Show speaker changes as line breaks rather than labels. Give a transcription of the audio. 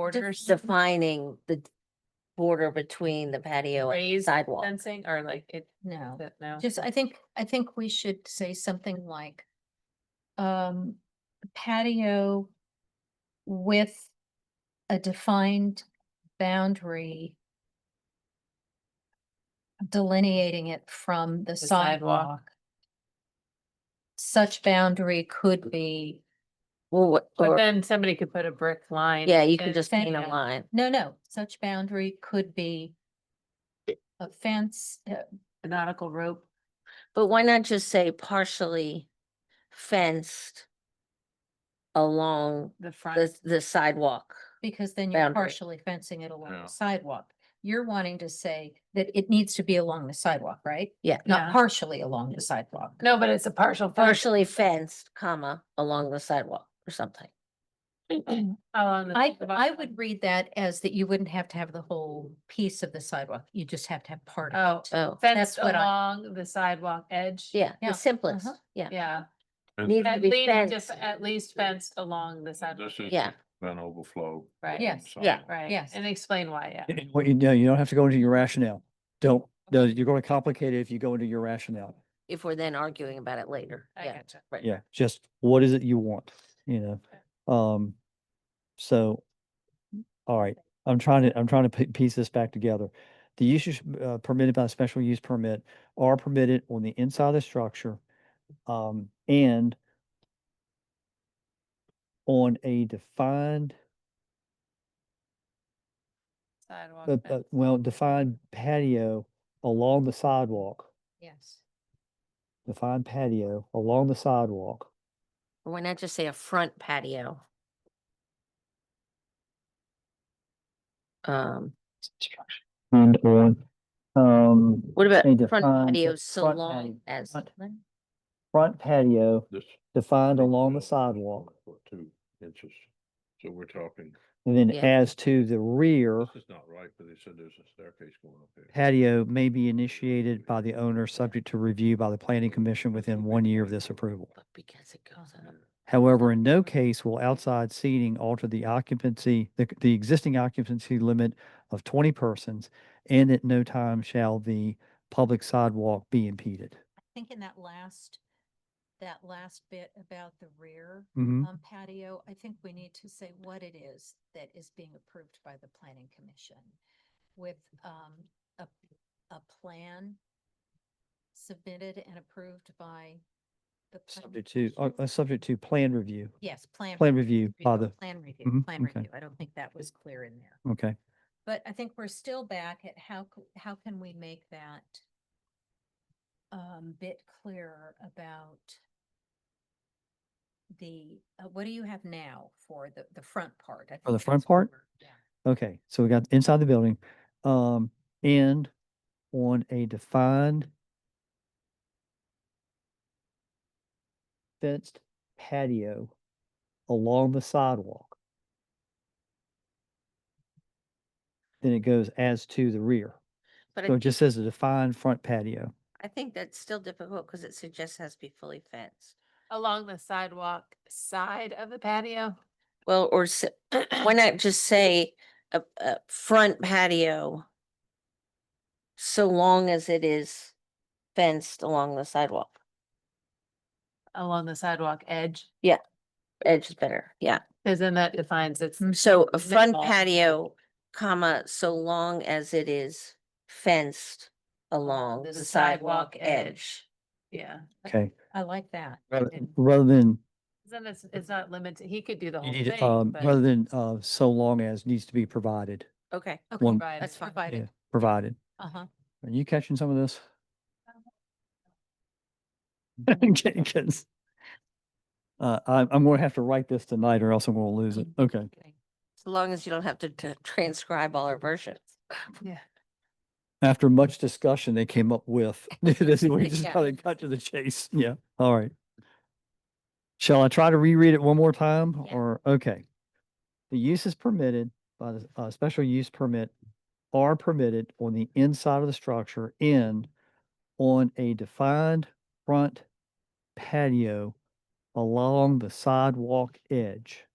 borders,
defining the border between the patio and
raised
sidewalk.
fencing or like it,
No,
that- no.
just, I think, I think we should say something like, um, patio with a defined boundary delineating it from the
sidewalk.
sidewalk. Such boundary could be,
Well, what,
But
or-
then somebody could put a brick line.
yeah, you can
and
just
say
paint a
no.
line.
no, no, such boundary could be a fence, uh,
A nautical rope.
But why not just say partially fenced along
the
the,
front.
the sidewalk?
Because then you're
boundary.
partially fencing it along
Yeah.
the sidewalk. You're wanting to say that it needs to be along the sidewalk, right?
Yeah.
Yeah.
Not partially along the sidewalk.
No, but it's a partial. fence
Partially fenced, comma, along the sidewalk or something.
along the
I,
sidewalk.
I would read that as that you wouldn't have to have the whole piece of the sidewalk. You just have to have part
Oh,
of it.
Oh,
Fenced
what I-
along the sidewalk edge.
yeah,
yeah,
the simplest,
uh-huh.
yeah.
Yeah,
And
Needs to
at
be
least, just
fenced.
at least fenced along the sidewalk,
This is
Yeah.
an overflow.
right?
Yeah.
from
Yeah.
somewhere.
Right.
Yes.
And explain why, yeah.
And What you do, you don't have to go into your rationale. Don't, no, you're going to complicate it if you go into your rationale.
If we're then arguing about it later,
I
yeah.
gotcha.
right.
Yeah, just what is it you want, you know? Um, so, all right, I'm trying to, I'm trying to pi- piece this back together. The uses uh, permitted by special use permit are permitted on the inside of the structure, um, and on a defined,
Sidewalk
uh, uh,
fence.
well, defined patio along the sidewalk.
Yes.
defined patio along the sidewalk.
Or Why not just say a front patio? Um,
And on, um,
what about
They
front
define the
patio so
front
long
patio,
as?
front- front patio
This.
defined along the
overflow
sidewalk.
for Two inches. So we're talking,
And then
Yeah.
as to the rear,
this is not right, but they said there's a staircase going up there.
patio may be initiated by the owner, subject to review by the planning commission within one year of this approval.
But because it goes up.
However, in no case will outside seating alter the occupancy, the, the existing occupancy limit of twenty persons, and at no time shall the public sidewalk be impeded.
I think in that last, that last bit about the rear
Mhm.
Oh.
um, patio, I think we need to say what it is that is being approved by the planning commission with um, a, a plan submitted and approved by the. planning
Subject to, uh,
commission.
uh, subject to plan review.
Yes, plan.
Plan review by the,
Plan review,
Mhm,
plan
okay.
review. I don't think that was clear in there.
okay,
But I think we're still back at how, c- how can we make that um, bit clearer about the, uh, what do you have now for the, the front part? I
For the
think
front
that's what
part?
we're- yeah.
okay. So we got inside the building, um, and on a defined fenced patio along the sidewalk. Then it goes as to the rear.
But
So
I,
it just says a defined front patio.
I think that's still difficult because it suggests it has to be fully fenced.
Along the sidewalk side of the patio.
Well, or s- why not just say a, a front patio? So long as it is fenced along the sidewalk.
Along the sidewalk edge,
Edge is better, yeah.
because then that defines it's.
Mm, So a front
minimal.
patio, comma, so long as it is fenced along
the
the
sidewalk
sidewalk
edge.
edge.
Yeah.
Okay.
I like that.
Rather
And-
rather than
Then it's, it's not limited. He could do the
You
whole
need, it,
thing.
um,
but-
rather than, uh, so long as needs to be provided,
Okay,
Okay,
one-
Provided.
that's fine.
yeah,
provided,
provided.
uh-huh.
Are you catching some of this? Jenkins. Uh, I'm, I'm gonna have to write this tonight or else I'm gonna lose it. Okay.
as long as you don't have to t- transcribe all our versions.
After much discussion, they came up with, this is, we just
Yeah.
kind of cut to the chase. Yeah, all right. Shall I try to reread it one more time
Yeah.
or, okay. The uses permitted by the, uh, special use permit are permitted on the inside of the structure and on a defined front patio along the sidewalk edge.